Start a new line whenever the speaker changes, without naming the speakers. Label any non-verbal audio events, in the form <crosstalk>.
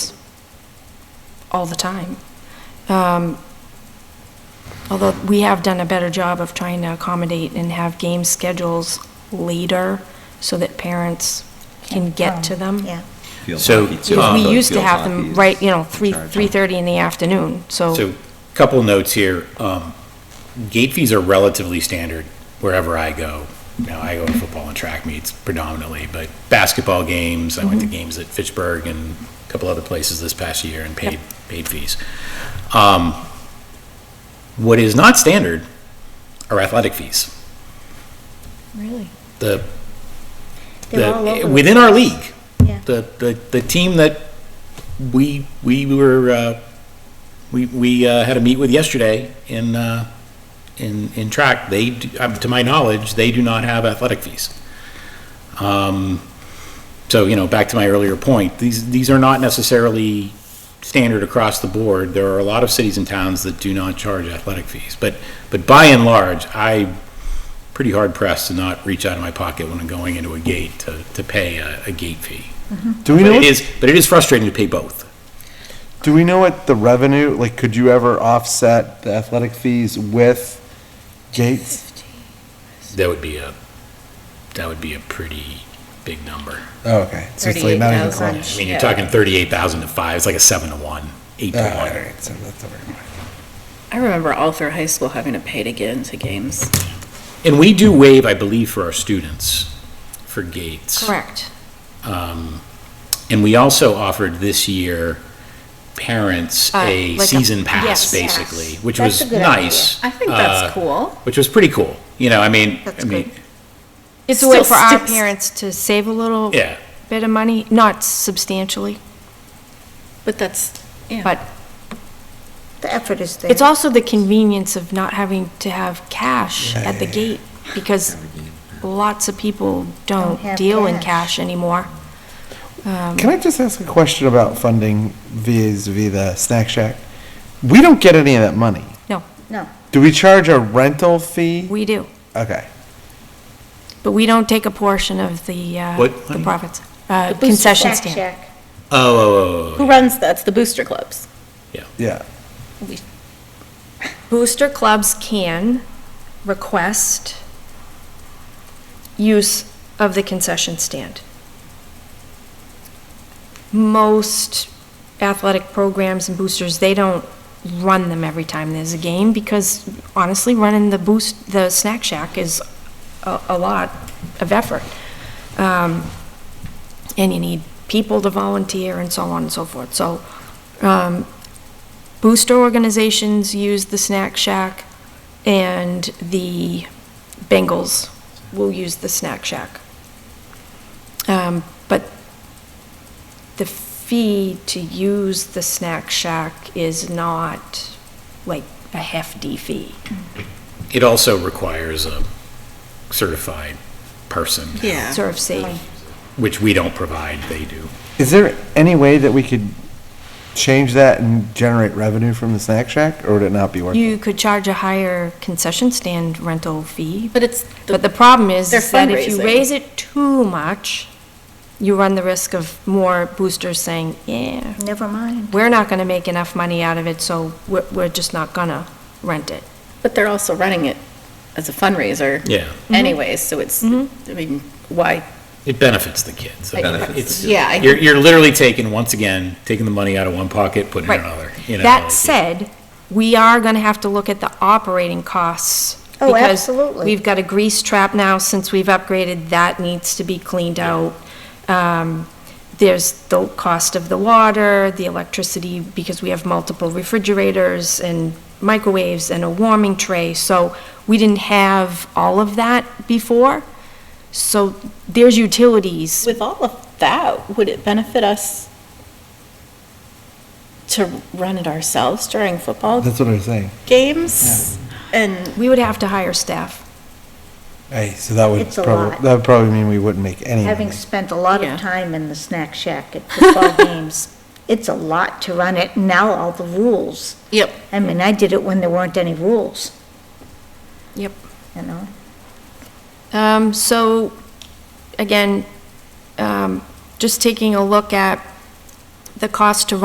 all the time. Um, Although we have done a better job of trying to accommodate and have game schedules later so that parents can get to them.
Yeah.
Field
So,
hockey, too.
Because
Um,
we used to
Field
have
hockey
them
is
right, you know,
in
three,
charge.
3:30 in the afternoon, so,
So, couple notes here. Um, Gate fees are relatively standard wherever I go. Now, I go to football and track meets predominantly, but basketball games, I went to games at Fitchburg and a couple other places this past year and paid, paid fees. Um, What is not standard are athletic fees.
Really?
The,
They're all
the,
over.
within our league.
Yeah.
The, the, the team that we, we were, uh, we, we, uh, had a meet with yesterday in, uh, in, in track, they, do- um, to my knowledge, they do not have athletic fees. Um, so, you know, back to my earlier point, these, these are not necessarily standard across the board. There are a lot of cities and towns that do not charge athletic fees, but, but by and large, I'm pretty hard pressed to not reach out of my pocket when I'm going into a gate to, to pay a, a gate fee.
Do we
But
know?
it
What,
is, but it is frustrating to pay both.
do we know what the revenue? Like, could you ever offset the athletic fees with gates?
That would be a, that would be a pretty big number.
Oh, okay. So it's like not even close.
I mean, you're talking thirty-eight thousand to five, it's like a seven to one, eight
Oh,
to
all
one.
right, so that's over.
I remember all through high school having to pay to get into games.
And we do waive, I believe, for our students, for gates.
correct.
Um, And we also offered this year parents
Uh,
a
like a-
season
yes.
pass, basically, which
That's
was
a good idea.
nice.
I think
uh,
that's cool.
Which was pretty cool, you know, I mean,
That's
I mean,
It's a way
Still
for our
sticks.
parents to save a little
yeah,
bit of money, not substantially,
But that's, yeah.
but
The effort is there.
It's also the convenience of not having to have cash at the gate, because lots of people
Don't
don't
have
deal in
cash.
cash anymore. Um,
Can I just ask a question about funding vis via the snack shack? We don't get any of that money.
No.
No.
Do we charge a rental fee?
We do,
Okay.
but we don't take a portion of the, uh,
What
the
money?
profits. Uh, concession
Shack
stand.
Shack.
oh, oh, oh,
Who runs that's the booster clubs.
Yeah.
Booster clubs can request use of the concession stand. Most athletic programs and boosters, they don't run them every time there's a game because honestly, running the boost, the snack shack is a, a lot of effort. Um, and you need people to volunteer and so on and so forth. So, um, booster organizations use the snack shack and the Bengals will use the snack shack. Um, but the fee to use the snack shack is not like a hefty fee.
oh. It also requires a certified person,
Yeah.
Sort of safe.
which we don't provide, they do.
Is there any way that we could change that and generate revenue from the snack shack, or would it not be worth
You
it?
could charge a higher concession stand rental fee,
But it's, the-
But the problem is
They're
is that if you
fundraising.
raise it too much, you run the risk of more boosters saying, yeah,
Never mind.
we're not gonna make enough money out of it, so we're, we're just not gonna rent it.
but they're also running it as a fundraiser
Yeah,
anyways, so it's, I mean, why?
it benefits the kids.
I-
benefits the
It's-
Yeah, I-
You're, you're literally taking, once again, taking the money out of one pocket, putting it in
Right.
another, you know.
That
like-
said, we are gonna have to look at the operating costs.
Oh,
because
absolutely.
We've got a grease trap now, since we've upgraded, that needs to be cleaned out. Um, There's the cost of the water, the electricity, because we have multiple refrigerators and microwaves and a warming tray, so we didn't have all of that before. So there's utilities.
With all of that, would it benefit us to run it ourselves during football
That's what I was saying.
games? And,
We would have to hire staff.
Hey, so that would
It's a
probably,
lot.
that would probably mean we wouldn't make any money.
Having spent a lot
Yeah.
of time in the snack shack at
<laughs>
football games, it's a lot to run it. Now all the rules.
yep,
I mean, I did it when there weren't any rules.
Yep.
You know?
Um, so, again, um, just taking a look at the cost to